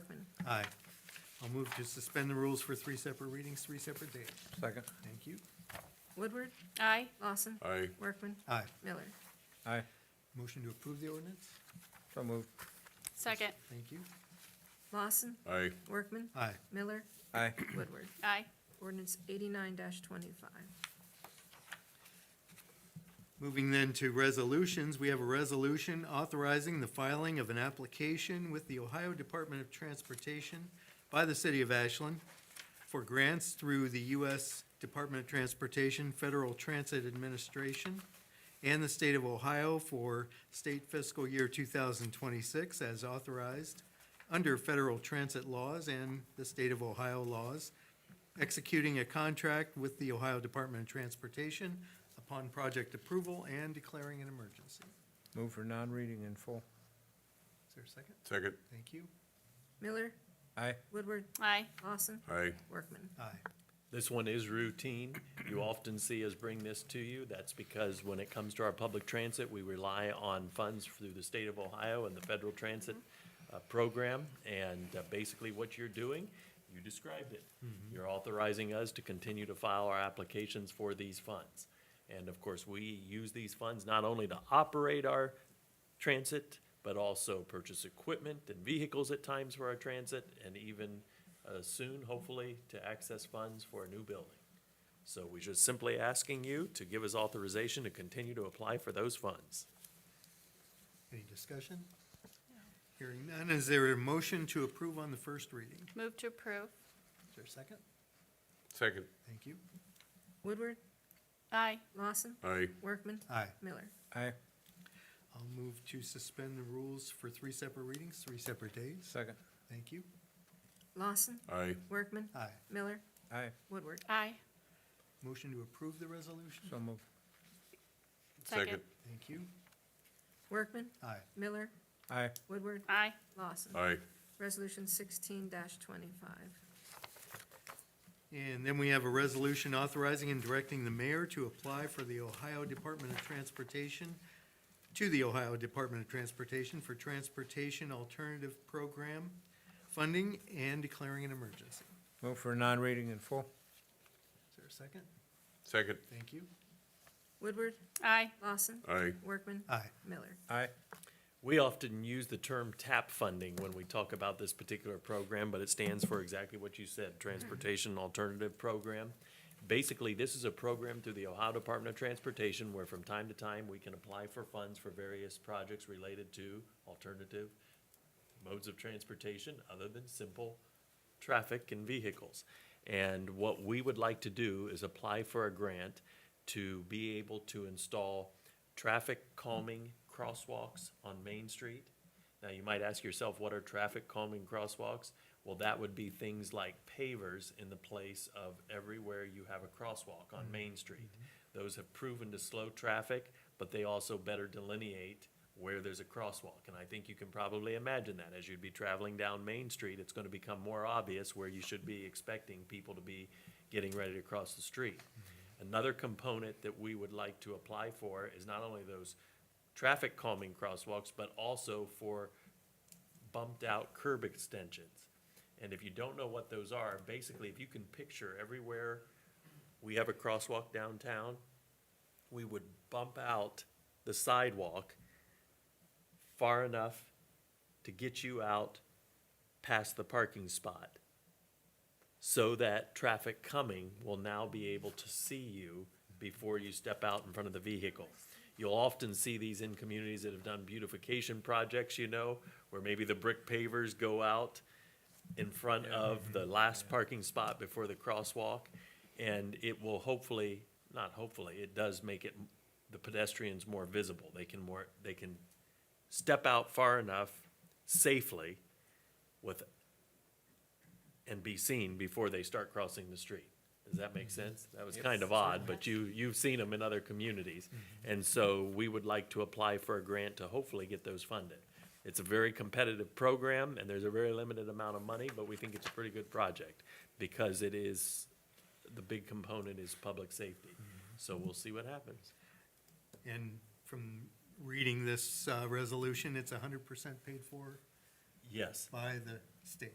Aye. I'll move to suspend the rules for three separate readings, three separate days. Second. Thank you. Woodward, Aye. Lawson, Aye. Workman, Aye. Miller. Aye. Motion to approve the ordinance? So moved. Second. Thank you. Lawson, Aye. Workman, Aye. Miller, Aye. Woodward. Aye. Ordinance eighty-nine twenty-five. Moving then to resolutions, we have a resolution authorizing the filing of an application with the Ohio Department of Transportation by the City of Ashland for grants through the U.S. Department of Transportation, Federal Transit Administration, and the State of Ohio for state fiscal year 2026 as authorized under federal transit laws and the State of Ohio laws, executing a contract with the Ohio Department of Transportation upon project approval and declaring an emergency. Move for non-reading in full. Is there a second? Second. Thank you. Miller, Aye. Woodward, Aye. Lawson, Aye. Workman. Aye. This one is routine. You often see us bring this to you. That's because when it comes to our public transit, we rely on funds through the state of Ohio and the federal transit uh, program. And uh, basically what you're doing, you described it. You're authorizing us to continue to file our applications for these funds. And of course, we use these funds not only to operate our transit, but also purchase equipment and vehicles at times for our transit, and even uh, soon, hopefully, to access funds for a new building. So we're just simply asking you to give us authorization to continue to apply for those funds. Any discussion? Hearing none, is there a motion to approve on the first reading? Move to approve. Is there a second? Second. Thank you. Woodward, Aye. Lawson, Aye. Workman, Aye. Miller. Aye. I'll move to suspend the rules for three separate readings, three separate days. Second. Thank you. Lawson, Aye. Workman, Aye. Miller, Aye. Woodward. Aye. Motion to approve the resolution? So moved. Second. Thank you. Workman, Aye. Miller, Aye. Woodward, Aye. Lawson. Aye. Resolution sixteen twenty-five. And then we have a resolution authorizing and directing the mayor to apply for the Ohio Department of Transportation, to the Ohio Department of Transportation for Transportation Alternative Program funding and declaring an emergency. Move for non-reading in full. Is there a second? Second. Thank you. Woodward, Aye. Lawson, Aye. Workman, Aye. Miller. Aye. We often use the term TAP funding when we talk about this particular program, but it stands for exactly what you said, Transportation Alternative Program. Basically, this is a program through the Ohio Department of Transportation where from time to time, we can apply for funds for various projects related to alternative modes of transportation other than simple traffic and vehicles. And what we would like to do is apply for a grant to be able to install traffic calming crosswalks on Main Street. Now, you might ask yourself, what are traffic calming crosswalks? Well, that would be things like pavers in the place of everywhere you have a crosswalk on Main Street. Those have proven to slow traffic, but they also better delineate where there's a crosswalk. And I think you can probably imagine that as you'd be traveling down Main Street, it's gonna become more obvious where you should be expecting people to be getting ready to cross the street. Another component that we would like to apply for is not only those traffic calming crosswalks, but also for bumped out curb extensions. And if you don't know what those are, basically, if you can picture everywhere we have a crosswalk downtown, we would bump out the sidewalk far enough to get you out past the parking spot so that traffic coming will now be able to see you before you step out in front of the vehicle. You'll often see these in communities that have done beautification projects, you know, where maybe the brick pavers go out in front of the last parking spot before the crosswalk. And it will hopefully, not hopefully, it does make it, the pedestrians more visible. They can more, they can step out far enough safely with, and be seen before they start crossing the street. Does that make sense? That was kind of odd, but you, you've seen them in other communities. And so we would like to apply for a grant to hopefully get those funded. It's a very competitive program and there's a very limited amount of money, but we think it's a pretty good project because it is, the big component is public safety. So we'll see what happens. And from reading this uh, resolution, it's 100% paid for Yes. by the state.